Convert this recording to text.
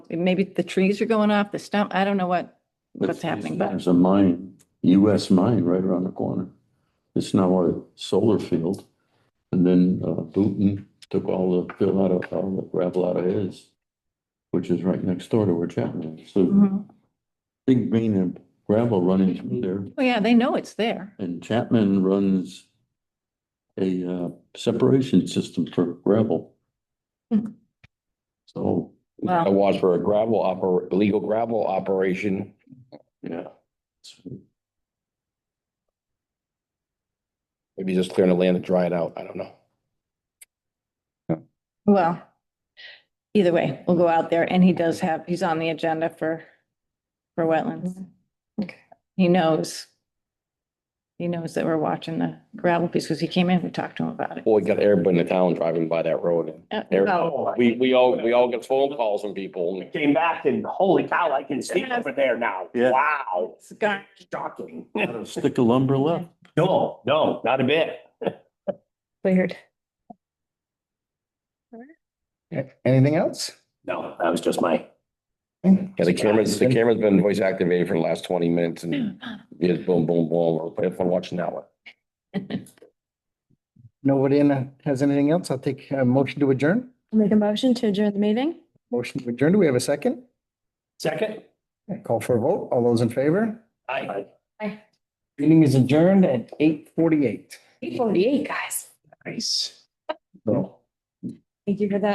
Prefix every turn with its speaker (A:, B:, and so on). A: maybe the trees are going off, the stump, I don't know what, what's happening, but
B: There's a mine, US mine right around the corner. It's now a solar field. And then uh, Booton took all the, fill out of, all the gravel out of his, which is right next door to where Chapman is. So
A: Mhm.
B: big vein of gravel running through there.
A: oh yeah, they know it's there.
B: And Chapman runs a uh, separation system for gravel.
A: Hmm.
B: So,
C: I
A: Well,
C: was for a gravel oper, illegal gravel operation.
B: yeah. It's-
C: Maybe just clearing the land to dry it out. I don't know.
A: well, either way, we'll go out there and he does have, he's on the agenda for, for wetlands.
D: Okay.
A: He knows. He knows that we're watching the gravel piece because he came in, we talked to him about it.
C: Boy, got everybody in the town driving by that road.
A: Uh, well,
C: Everybody- We, we all, we all get phone calls from people.
E: Oh, Came back and holy cow, I can see over there now.
B: Yeah.
E: Wow.
A: it's gone.
E: Shocking.
B: Not a Stick of lumber left.
E: No, no, not a bit.
D: Weird.
F: Anything else?
E: No, that was just my.
C: Yeah, the camera's, the camera's been voice activated for the last twenty minutes and yeah, boom, boom, boom. Have fun watching that one.
F: Nobody in, uh, has anything else? I'll take a motion to adjourn.
D: Make a motion to adjourn the meeting?
F: Motion to adjourn. Do we have a second?
E: Second?
F: Call for a vote. All those in favor?
E: I.
F: Meeting is adjourned at eight forty-eight.
D: Eight forty-eight, guys.
F: Nice. So.
D: Thank you for that.